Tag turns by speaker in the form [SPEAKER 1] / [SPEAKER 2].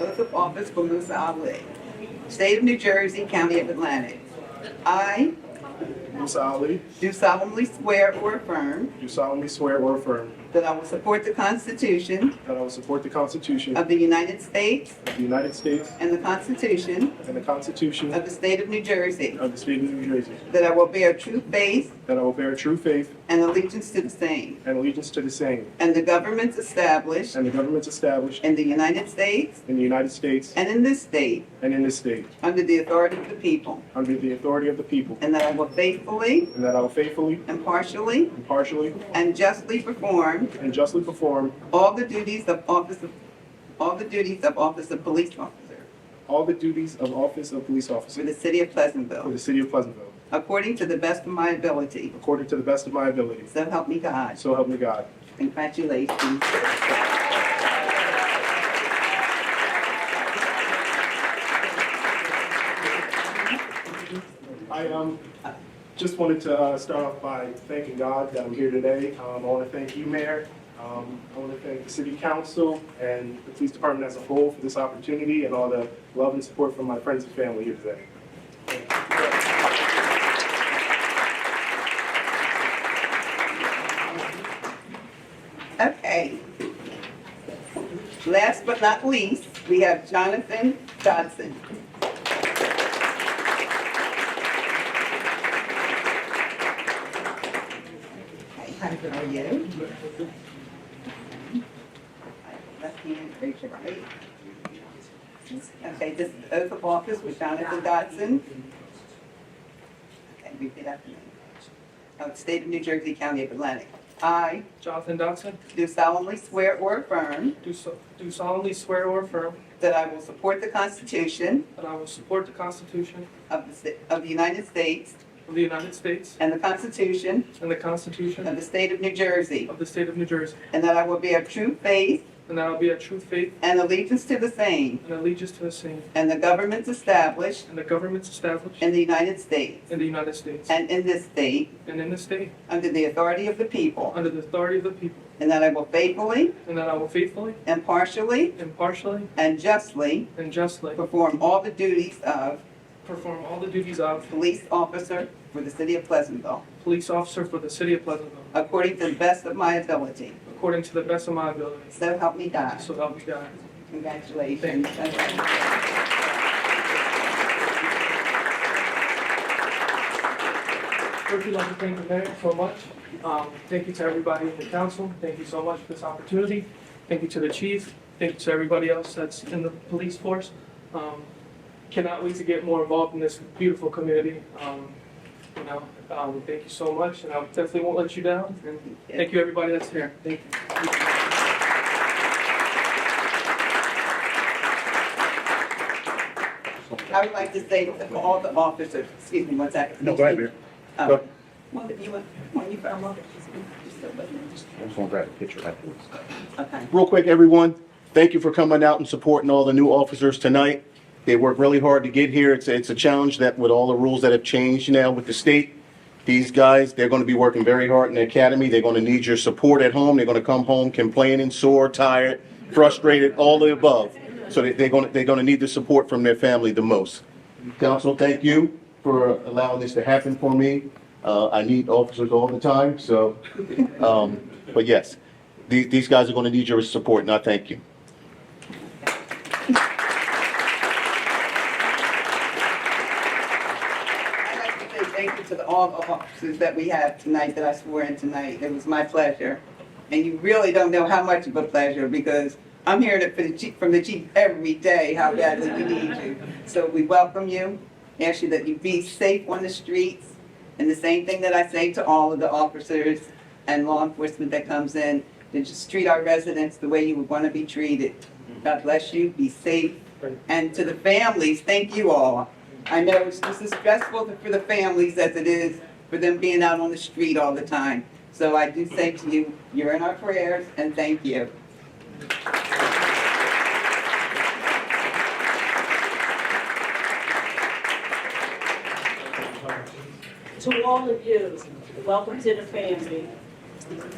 [SPEAKER 1] Oath of office for Musa Ali. State of New Jersey, County of Atlantic. I
[SPEAKER 2] Musa Ali,
[SPEAKER 1] do solemnly swear or affirm
[SPEAKER 2] do solemnly swear or affirm
[SPEAKER 1] that I will support the Constitution
[SPEAKER 2] that I will support the Constitution
[SPEAKER 1] of the United States
[SPEAKER 2] of the United States
[SPEAKER 1] and the Constitution
[SPEAKER 2] and the Constitution
[SPEAKER 1] of the State of New Jersey,
[SPEAKER 2] of the State of New Jersey,
[SPEAKER 1] that I will bear true faith
[SPEAKER 2] that I will bear true faith
[SPEAKER 1] and allegiance to the same,
[SPEAKER 2] and allegiance to the same,
[SPEAKER 1] and the governments established
[SPEAKER 2] and the governments established
[SPEAKER 1] in the United States
[SPEAKER 2] in the United States
[SPEAKER 1] and in this state
[SPEAKER 2] and in this state,
[SPEAKER 1] under the authority of the people,
[SPEAKER 2] under the authority of the people,
[SPEAKER 1] and that I will faithfully,
[SPEAKER 2] and that I will faithfully,
[SPEAKER 1] impartially,
[SPEAKER 2] impartially,
[SPEAKER 1] and justly perform
[SPEAKER 2] and justly perform
[SPEAKER 1] all the duties of office of, all the duties of office of police officer
[SPEAKER 2] all the duties of office of police
[SPEAKER 1] for
[SPEAKER 2] officer
[SPEAKER 1] the city of
[SPEAKER 2] for
[SPEAKER 1] Pleasantville,
[SPEAKER 2] the city of Pleasantville,
[SPEAKER 1] according to the best of my ability.
[SPEAKER 2] according to the best of my ability.
[SPEAKER 1] So help me God.
[SPEAKER 2] So help me God.
[SPEAKER 1] Congratulations.
[SPEAKER 2] I um, just wanted to uh, start off by thanking God that I'm here today. Um, I want to thank you, Mayor. Um, I want to thank the City Council and the Police Department as a whole for this opportunity and all the love and support from my friends and family here today.
[SPEAKER 1] Okay. Last but not least, we have Jonathan Dodson. Hey, How good are you? Left hand, raise your right. Okay, this is the oath of office with Jonathan Dodson. Okay, repeat after me. Of State of New Jersey, County of Atlantic. I
[SPEAKER 3] Jonathan Dodson,
[SPEAKER 1] do solemnly swear or affirm
[SPEAKER 3] do so- do solemnly swear or affirm
[SPEAKER 1] that I will support the Constitution
[SPEAKER 3] that I will support the Constitution
[SPEAKER 1] of the, sta- of the United States
[SPEAKER 3] of the United States
[SPEAKER 1] and the Constitution
[SPEAKER 3] and the
[SPEAKER 1] of
[SPEAKER 3] Constitution
[SPEAKER 1] the State of New Jersey,
[SPEAKER 3] of the State of New Jersey,
[SPEAKER 1] and that I will bear true faith
[SPEAKER 3] and that I will be a true faith
[SPEAKER 1] and allegiance to the same,
[SPEAKER 3] and allegiance to the same,
[SPEAKER 1] and the governments established
[SPEAKER 3] and the governments established
[SPEAKER 1] in the United States
[SPEAKER 3] in the United States
[SPEAKER 1] and in this state,
[SPEAKER 3] and in the state,
[SPEAKER 1] under the authority of the people,
[SPEAKER 3] under the authority of the people,
[SPEAKER 1] and that I will faithfully,
[SPEAKER 3] and that I will faithfully,
[SPEAKER 1] impartially,
[SPEAKER 3] impartially,
[SPEAKER 1] and justly
[SPEAKER 3] and justly
[SPEAKER 1] perform all the duties of
[SPEAKER 3] perform all the duties of
[SPEAKER 1] police officer for the City of Pleasantville,
[SPEAKER 3] police officer for the City of Pleasantville,
[SPEAKER 1] according to the best of my ability.
[SPEAKER 3] according to the best of my ability.
[SPEAKER 1] So help me God.
[SPEAKER 3] So help me God.
[SPEAKER 1] Congratulations.
[SPEAKER 3] First, we'd like to thank the mayor so much. Um, Thank you to everybody in the council. Thank you so much for this opportunity. Thank you to the chief. Thank you to everybody else that's in the police force. Um, Cannot wait to get more involved in this beautiful community. Um, You know, um, thank you so much, and I definitely won't let you down. And thank you, everybody that's here. Thank you.
[SPEAKER 1] I would like to say to all the officers, excuse me, one second.
[SPEAKER 4] No, go ahead, Mayor.
[SPEAKER 1] Um,
[SPEAKER 4] Go ahead.
[SPEAKER 1] Well, if you want, when you come up, just go with me.
[SPEAKER 4] I'm just gonna grab a picture afterwards.
[SPEAKER 1] Okay.
[SPEAKER 4] Real quick, everyone, thank you for coming out and supporting all the new officers tonight. They worked really hard to get here. It's, it's a challenge that with all the rules that have changed now with the state, these guys, they're gonna be working very hard in the academy. They're gonna need your support at home. They're gonna come home complaining, sore, tired, frustrated, all the above. So they, they're gonna, they're gonna need the support from their family the most. Council, thank you for allowing this to happen for me. Uh, I need officers all the time, so, um, but yes, these, these guys are gonna need your support, and I thank you.
[SPEAKER 1] I'd like to say thank you to the- all the officers that we have tonight, that I swore in tonight. It was my pleasure. And you really don't know how much of a pleasure, because I'm hearing it for the chief, from the chief every day, how badly we need you. So we welcome you, ask you that you be safe on the streets. And the same thing that I say to all of the officers and law enforcement that comes in, to just treat our residents the way you would want to be treated. God bless you, be safe. And to the families, thank you all. I know it's just as stressful for the families as it is for them being out on the street all the time. So I do say to you, you're in our prayers and thank you.
[SPEAKER 5] To all of you, welcome to the family.